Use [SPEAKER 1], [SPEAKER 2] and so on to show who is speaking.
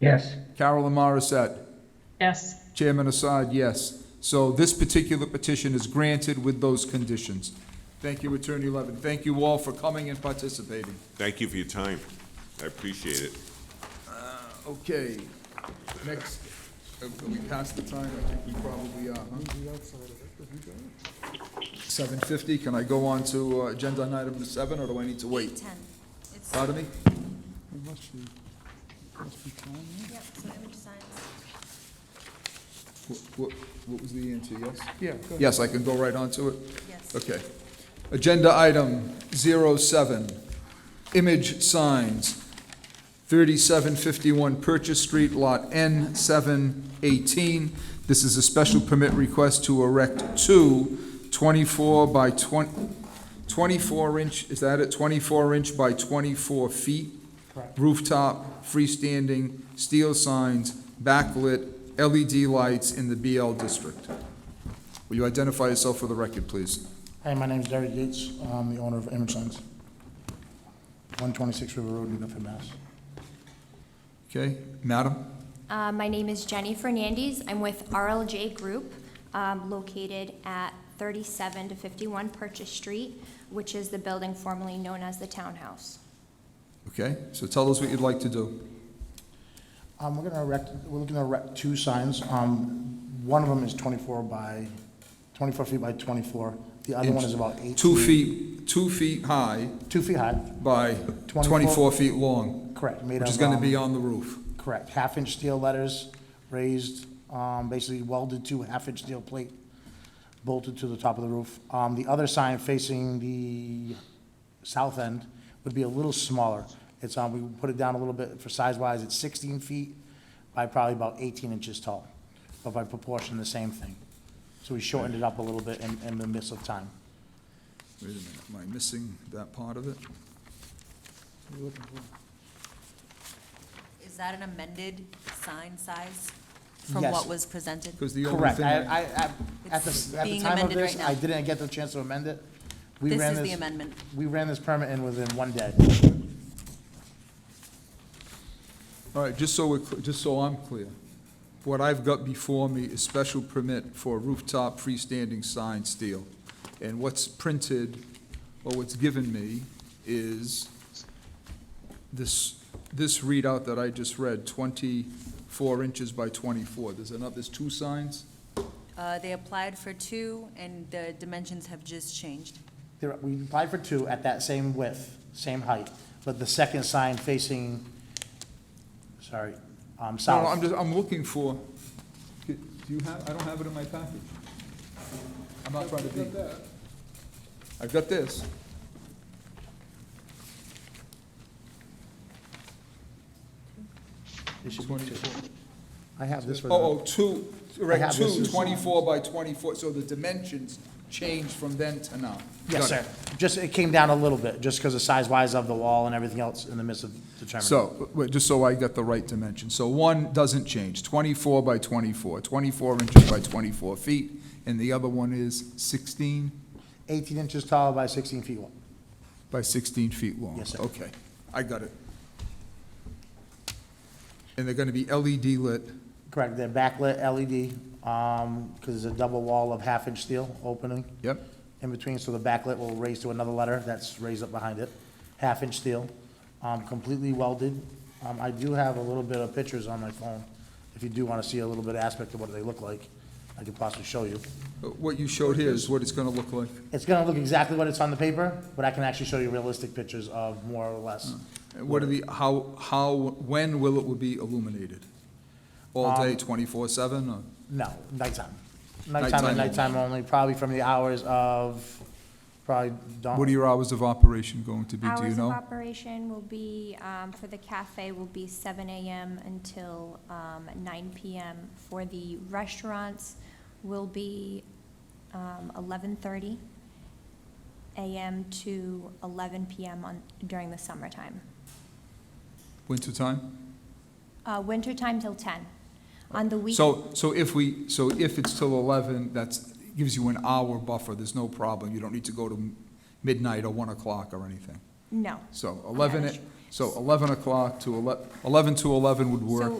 [SPEAKER 1] yes,
[SPEAKER 2] Carol and Morissette.
[SPEAKER 3] yes,
[SPEAKER 2] Chairman Assad, yes. So this particular petition is granted with those conditions. Thank you, Attorney Levin. Thank you all for coming and participating.
[SPEAKER 4] Thank you for your time. I appreciate it.
[SPEAKER 2] Okay, next, uh, we passed the time, I think we probably uh, are, huh? Seven fifty, can I go on to uh, agenda item number seven, or do I need to wait?
[SPEAKER 5] 10. It's,
[SPEAKER 2] Pardon me?
[SPEAKER 5] yep, so image signs.
[SPEAKER 2] What, what- what was the answer, yes? Yeah. Yes, I can go right on to it?
[SPEAKER 5] Yes.
[SPEAKER 2] Okay. Agenda item 07, image signs, 3751 Purchase Street, Lot N718. This is a special permit request to erect two 24 by 20, 24 inch, is that it? 24 inch by 24 feet rooftop, freestanding, steel signs, backlit, LED lights in the BL district. Will you identify yourself for the record, please?
[SPEAKER 6] Hi, my name's Derek Yates. I'm the owner of Image Signs, 126 River Road, New Bedford, Mass.
[SPEAKER 2] Okay, madam?
[SPEAKER 5] Uh, My name is Jenny Fernandez. I'm with RLJ Group, um, located at 37 to 51 Purchase Street, which is the building formerly known as the townhouse.
[SPEAKER 2] Okay, so tell us what you'd like to do.
[SPEAKER 6] Um, We're gonna erect, we're looking to erect two signs. Um, One of them is 24 by, 24 feet by 24. The other one is about eight.
[SPEAKER 2] Two feet, two feet high
[SPEAKER 6] Two feet high,
[SPEAKER 2] by 24
[SPEAKER 6] 24
[SPEAKER 2] feet long,
[SPEAKER 6] correct. made
[SPEAKER 2] which is
[SPEAKER 6] of,
[SPEAKER 2] going to
[SPEAKER 6] um,
[SPEAKER 2] be on the roof.
[SPEAKER 6] Correct, half-inch steel letters, raised, um, basically welded to a half-inch steel plate, bolted to the top of the roof. Um, The other sign facing the south end would be a little smaller. It's, um, we put it down a little bit for size-wise, it's 16 feet by probably about 18 inches tall, but by proportion, the same thing. So we shortened it up a little bit in, in the midst of time.
[SPEAKER 2] Wait a minute, am I missing that part of it?
[SPEAKER 7] Is that an amended sign size from
[SPEAKER 6] Yes.
[SPEAKER 7] what was presented?
[SPEAKER 2] Because the only
[SPEAKER 6] Correct,
[SPEAKER 2] thing... I-
[SPEAKER 6] I, I, I- at
[SPEAKER 7] It's
[SPEAKER 6] the, at the
[SPEAKER 7] being
[SPEAKER 6] time of
[SPEAKER 7] amended
[SPEAKER 6] this,
[SPEAKER 7] right now.
[SPEAKER 6] I didn't get the chance to amend it. We
[SPEAKER 7] This
[SPEAKER 6] ran
[SPEAKER 7] is the amendment.
[SPEAKER 6] We ran this permit in within one day.
[SPEAKER 2] All right, just so we're, cl- just so I'm clear, what I've got before me is special permit for rooftop freestanding sign steel. And what's printed, or what's given me, is this, this readout that I just read, 24 inches by 24. There's another, there's two signs?
[SPEAKER 7] Uh, They applied for two, and the dimensions have just changed.
[SPEAKER 6] There, we applied for two at that same width, same height, but the second sign facing, sorry, um,
[SPEAKER 2] No, no, I'm
[SPEAKER 6] south.
[SPEAKER 2] just, I'm looking for, do you have, I don't have it in my package. I'm not trying to be. I've got this.
[SPEAKER 6] It should be two.
[SPEAKER 2] 24.
[SPEAKER 6] I have this for
[SPEAKER 2] Oh,
[SPEAKER 6] the,
[SPEAKER 2] oh, two,
[SPEAKER 6] I
[SPEAKER 2] right,
[SPEAKER 6] have this
[SPEAKER 2] two,
[SPEAKER 6] as-
[SPEAKER 2] 24 by 24, so the dimensions change from then to now.
[SPEAKER 6] yes,
[SPEAKER 2] Got
[SPEAKER 6] sir.
[SPEAKER 2] it.
[SPEAKER 6] Just, it came down a little bit, just because of size-wise of the wall and everything else in the midst of determining.
[SPEAKER 2] So, wait, just so I got the right dimension, so one doesn't change, 24 by 24, 24 inches by 24 feet, and the other one is 16
[SPEAKER 6] Eighteen inches tall by sixteen feet wide.
[SPEAKER 2] by 16 feet long?
[SPEAKER 6] Yes, sir.
[SPEAKER 2] Okay, I got it. And they're going to be LED lit,
[SPEAKER 6] Correct, they're backlit LED, um, because it's a double wall of half-inch steel opening
[SPEAKER 2] yep,
[SPEAKER 6] in between, so the backlit will raise to another letter that's raised up behind it, half-inch steel, um, completely welded. Um, I do have a little bit of pictures on my phone, if you do want to see a little bit of aspect of what they look like, I could possibly show you.
[SPEAKER 2] But Uh, what you showed here is what it's going to look like,
[SPEAKER 6] It's gonna look exactly what it's on the paper, but I can actually show you realistic pictures of more or less.
[SPEAKER 2] And what are the, how, how, when will it be illuminated? All day, 24/7, or?
[SPEAKER 6] No, nighttime. Nighttime
[SPEAKER 2] Nighttime
[SPEAKER 6] and nighttime only, probably from the hours of, probably dawn.
[SPEAKER 2] What are your hours of operation going to be, do you
[SPEAKER 5] Hours of
[SPEAKER 2] know?
[SPEAKER 5] operation will be, um, for the cafe will be 7 AM until um, 9 PM. For the restaurants will be um, 11:30 AM to 11 PM on, during the summertime.
[SPEAKER 2] Winter time?
[SPEAKER 5] Uh, Wintertime till 10. On the week,
[SPEAKER 2] So, so if we, so if it's till 11, that's, gives you an hour buffer, there's no problem. You don't need to go to midnight or 1 o'clock or anything.
[SPEAKER 5] no.
[SPEAKER 2] So 11,
[SPEAKER 5] that's
[SPEAKER 2] so 11 o'clock to 11, 11 to 11 would work.
[SPEAKER 5] So